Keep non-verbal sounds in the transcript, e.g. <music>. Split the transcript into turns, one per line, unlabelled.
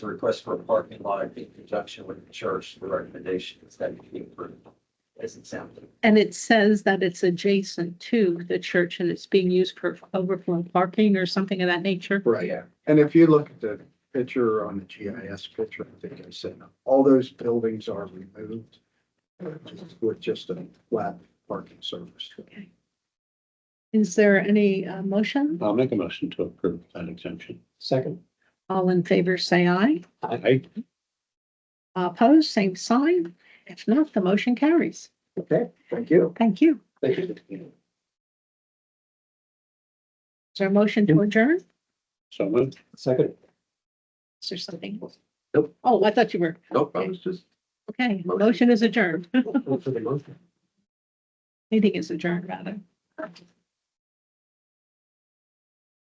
the request for a parking lot in conjunction with the church, the recommendation is that it be approved. As it sounded.
And it says that it's adjacent to the church and it's being used for overflow parking or something of that nature.
Right, and if you look at the picture on the GIS picture, I think I said, all those buildings are removed just with just a flat parking surface.
Okay. Is there any uh, motion?
I'll make a motion to approve that exemption.
Second.
All in favor, say aye.
I,
Opposed, same sign. If not, the motion carries.
Okay, thank you.
Thank you.
Thank you.
Is there a motion to adjourn?
so moved.
Second.
Is there something? else?
Nope.
Oh, I thought you were.
Nope, I was just.
Okay,
Motion.
motion is adjourned. <laughs>
for the motion.
Meeting is adjourned, rather.